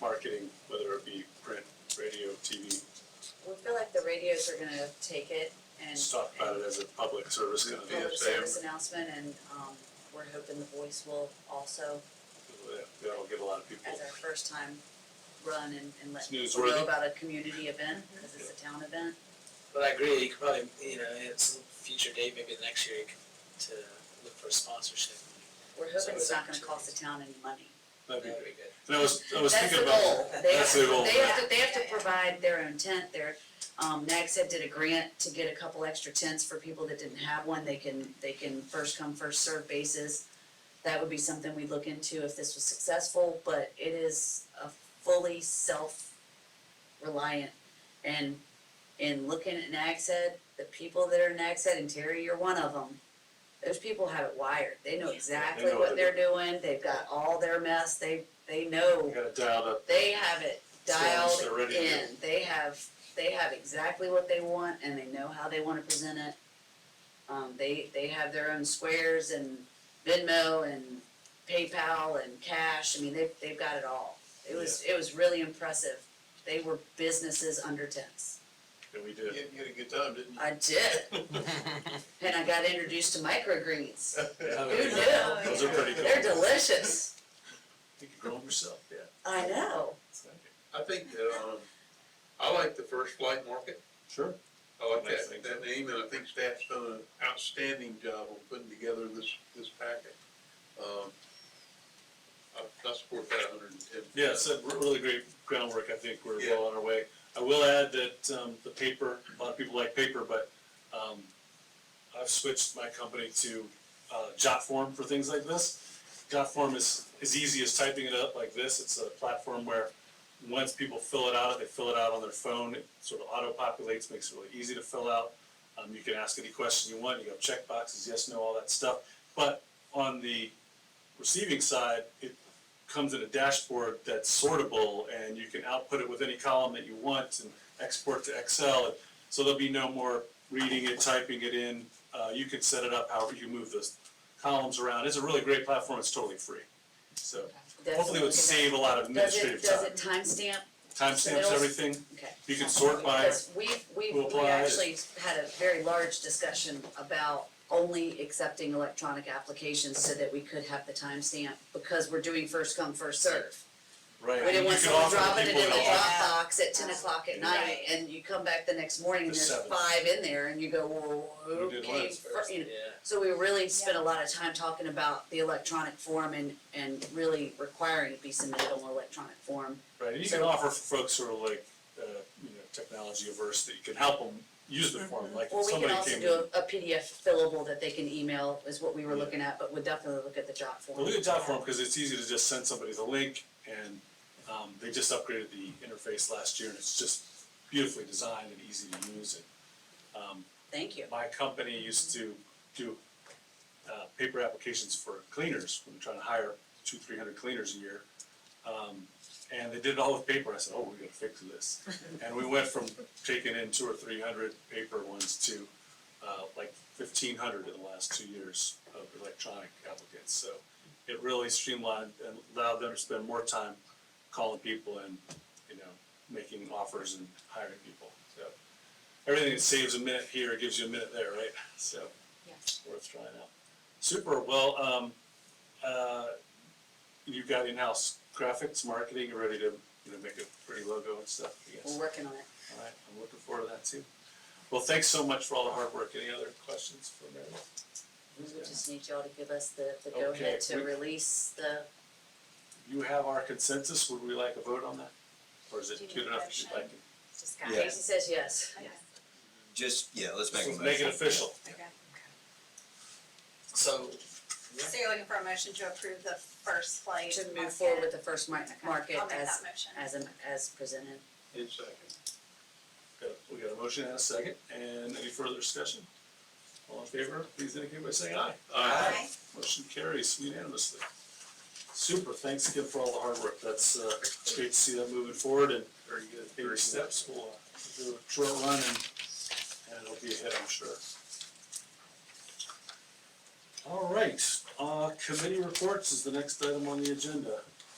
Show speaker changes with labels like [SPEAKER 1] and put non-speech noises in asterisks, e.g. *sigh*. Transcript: [SPEAKER 1] marketing, whether it be print, radio, TV,
[SPEAKER 2] We feel like the radios are gonna take it and.
[SPEAKER 1] just talk about it as a public service kind of thing.
[SPEAKER 2] Public
[SPEAKER 1] if they-
[SPEAKER 2] service announcement and, um, we're hoping the voice will also,
[SPEAKER 1] That'll get a lot of people.
[SPEAKER 2] as our first time run and, and let
[SPEAKER 1] It's
[SPEAKER 2] people know
[SPEAKER 1] newsworthy.
[SPEAKER 2] about a community event, cause it's a town event.
[SPEAKER 3] But I agree, you could probably, you know, it's a future date, maybe the next year, you could- to look for a sponsorship.
[SPEAKER 2] We're hoping it's
[SPEAKER 3] So-
[SPEAKER 2] not gonna cost the town any money.
[SPEAKER 1] That'd be
[SPEAKER 3] That'd
[SPEAKER 1] great.
[SPEAKER 3] be good.
[SPEAKER 1] And I was, I was thinking about.
[SPEAKER 2] That's
[SPEAKER 1] that's
[SPEAKER 2] the
[SPEAKER 1] the
[SPEAKER 2] goal.
[SPEAKER 1] goal.
[SPEAKER 2] They, they have to, they have
[SPEAKER 4] Yeah,
[SPEAKER 2] to
[SPEAKER 4] yeah.
[SPEAKER 2] provide their own tent, their, um, NAGSA did a grant to get a couple extra tents for people that didn't have one, they can, they can first come, first served basis. That would be something we'd look into if this was successful, but it is a fully self-reliant. And in looking at NAGSA, the people that are in NAGSA, and Terry, you're one of them, those people have it wired, they know
[SPEAKER 4] Yeah.
[SPEAKER 2] exactly
[SPEAKER 1] They know
[SPEAKER 2] what
[SPEAKER 1] what
[SPEAKER 2] they're
[SPEAKER 1] they're
[SPEAKER 2] doing, they've got all their mess, they, they know
[SPEAKER 1] We got it dialed up.
[SPEAKER 2] they have it dialed
[SPEAKER 1] They're ready to
[SPEAKER 2] in, they have, they have exactly what they want and they know how they wanna present it. Um, they, they have their own squares and Venmo and PayPal and cash, I mean, they've, they've got it all. It was, it was really impressive, they were businesses under tents,
[SPEAKER 1] And we did.
[SPEAKER 5] You had a good time, didn't you?
[SPEAKER 2] I did, and I got introduced to microgreens,
[SPEAKER 3] Oh,
[SPEAKER 2] who
[SPEAKER 3] yeah.
[SPEAKER 2] knew?
[SPEAKER 1] Uh, Those are pretty cool.
[SPEAKER 2] They're delicious,
[SPEAKER 1] You could grow them yourself, yeah.
[SPEAKER 2] I know,
[SPEAKER 5] I think that, um, I like the first flight market,
[SPEAKER 1] Sure.
[SPEAKER 5] I like
[SPEAKER 1] Nice thing.
[SPEAKER 5] that, that name, and I think staff's done an outstanding job on putting together this, this packet. Um, I, I support that hundred and ten.
[SPEAKER 1] Yeah, it's a re- really great groundwork, I think we're
[SPEAKER 5] Yeah.
[SPEAKER 1] well on our way. I will add that, um, the paper, a lot of people like paper, but, um, I've switched my company to, uh, Jotform for things like this. Jotform is, is easy as typing it up like this, it's a platform where once people fill it out, they fill it out on their phone, it sort of auto-populates, makes it really easy to fill out. Um, you can ask any question you want, you have check boxes, yes, no, all that stuff, but on the receiving side, it comes in a dashboard that's sortable and you can output it with any column that you want and export to Excel. So there'll be no more reading it, typing it in. Uh, you can set it up however you move those columns around. It's a really great platform. It's totally free. So hopefully it
[SPEAKER 2] Definitely.
[SPEAKER 1] would save a lot of
[SPEAKER 2] Does it,
[SPEAKER 1] administrative
[SPEAKER 2] does
[SPEAKER 1] time.
[SPEAKER 2] it timestamp
[SPEAKER 1] Timestamps
[SPEAKER 2] submittals?
[SPEAKER 1] everything.
[SPEAKER 2] Okay.
[SPEAKER 1] You can sort by,
[SPEAKER 2] Because we've, we've,
[SPEAKER 1] who
[SPEAKER 2] we
[SPEAKER 1] applied.
[SPEAKER 2] actually had a very large discussion about only accepting electronic applications so that we could have the timestamp, because we're doing first come, first serve.
[SPEAKER 1] right.
[SPEAKER 2] We didn't
[SPEAKER 1] You
[SPEAKER 2] want
[SPEAKER 1] can
[SPEAKER 2] someone
[SPEAKER 1] offer the
[SPEAKER 2] dropping it
[SPEAKER 1] people
[SPEAKER 2] in the
[SPEAKER 1] that are-
[SPEAKER 2] Dropbox at ten o'clock at night,
[SPEAKER 4] Right.
[SPEAKER 2] and you come back the next morning and
[SPEAKER 1] The
[SPEAKER 2] there's
[SPEAKER 1] seventh.
[SPEAKER 2] five in there, and you go, whoa,
[SPEAKER 1] Who
[SPEAKER 2] who
[SPEAKER 1] did
[SPEAKER 2] came
[SPEAKER 1] what?
[SPEAKER 2] first, you know.
[SPEAKER 3] Yeah.
[SPEAKER 2] So we really spent a lot of time talking about the electronic form and, and really requiring it be submitted on electronic form.
[SPEAKER 1] Right, and you can offer for folks who are like, uh, you know, technology averse, that you can help them use the form, like
[SPEAKER 2] Or
[SPEAKER 1] if
[SPEAKER 2] Mm-hmm. we can
[SPEAKER 1] somebody
[SPEAKER 2] also
[SPEAKER 1] came.
[SPEAKER 2] do a- a PDF fillable that they can email is what we were
[SPEAKER 1] Yeah.
[SPEAKER 2] looking at, but would definitely look at the job form.
[SPEAKER 1] Well, look at job form, because it's easy to just send somebody the link, and, um, they just upgraded the interface last year, and it's just beautifully designed and easy to use, and, um,
[SPEAKER 2] Thank you.
[SPEAKER 1] my company used to do, uh, paper applications for cleaners, we were trying to hire two, three hundred cleaners a year. Um, and they did it all with paper, I said, oh, we gotta fix this.
[SPEAKER 2] *laughs*
[SPEAKER 1] And we went from taking in two or three hundred paper ones to, uh, like fifteen hundred in the last two years of electronic applicants, so. It really streamlined and allowed them to spend more time calling people and, you know, making offers and hiring people, so. Everything that saves a minute here gives you a minute there, right? *laughs* So.
[SPEAKER 4] Yes.
[SPEAKER 1] Worth trying out. Super, well, um, uh, you've got in-house graphics, marketing, you're ready to, you know, make a pretty logo and stuff, I guess.
[SPEAKER 2] We're working on it.
[SPEAKER 1] All right, I'm looking forward to that too. Well, thanks so much for all the hard work. Any other questions for Meredith?
[SPEAKER 2] We would just need y'all to give us the, the go-ahead
[SPEAKER 1] Okay,
[SPEAKER 2] to
[SPEAKER 1] we-
[SPEAKER 2] release the,
[SPEAKER 1] You have our consensus. Would we like a vote on that? Or is it
[SPEAKER 4] Do you
[SPEAKER 1] good
[SPEAKER 4] need a
[SPEAKER 1] enough that you'd like?
[SPEAKER 4] motion?
[SPEAKER 1] it?
[SPEAKER 4] Discuss.
[SPEAKER 6] Yeah.
[SPEAKER 2] Casey says yes.
[SPEAKER 4] Okay.
[SPEAKER 6] Just, yeah, let's make a
[SPEAKER 1] Let's
[SPEAKER 6] motion.
[SPEAKER 1] Make it official.
[SPEAKER 4] Okay.
[SPEAKER 3] So, yeah,
[SPEAKER 4] So you're looking for a motion to approve the first flight?
[SPEAKER 2] To move
[SPEAKER 4] market?
[SPEAKER 2] forward with the first mar-
[SPEAKER 4] Okay,
[SPEAKER 2] market
[SPEAKER 4] I'll make that
[SPEAKER 2] as,
[SPEAKER 4] motion.
[SPEAKER 2] as, am- as presented.
[SPEAKER 5] In second.
[SPEAKER 1] Got a- We got a motion and a second. And any further discussion? All in favor, please indicate by saying aye.
[SPEAKER 4] Aye.
[SPEAKER 1] Motion carries unanimously. Super, thanks again for all the hard work. That's, uh, it's great to see that moving forward and
[SPEAKER 5] Very good.
[SPEAKER 1] baby
[SPEAKER 5] Very good.
[SPEAKER 1] steps. We'll uh, do a short run and, and it'll be ahead, I'm sure. All right, uh, committee reports is the next item on the agenda.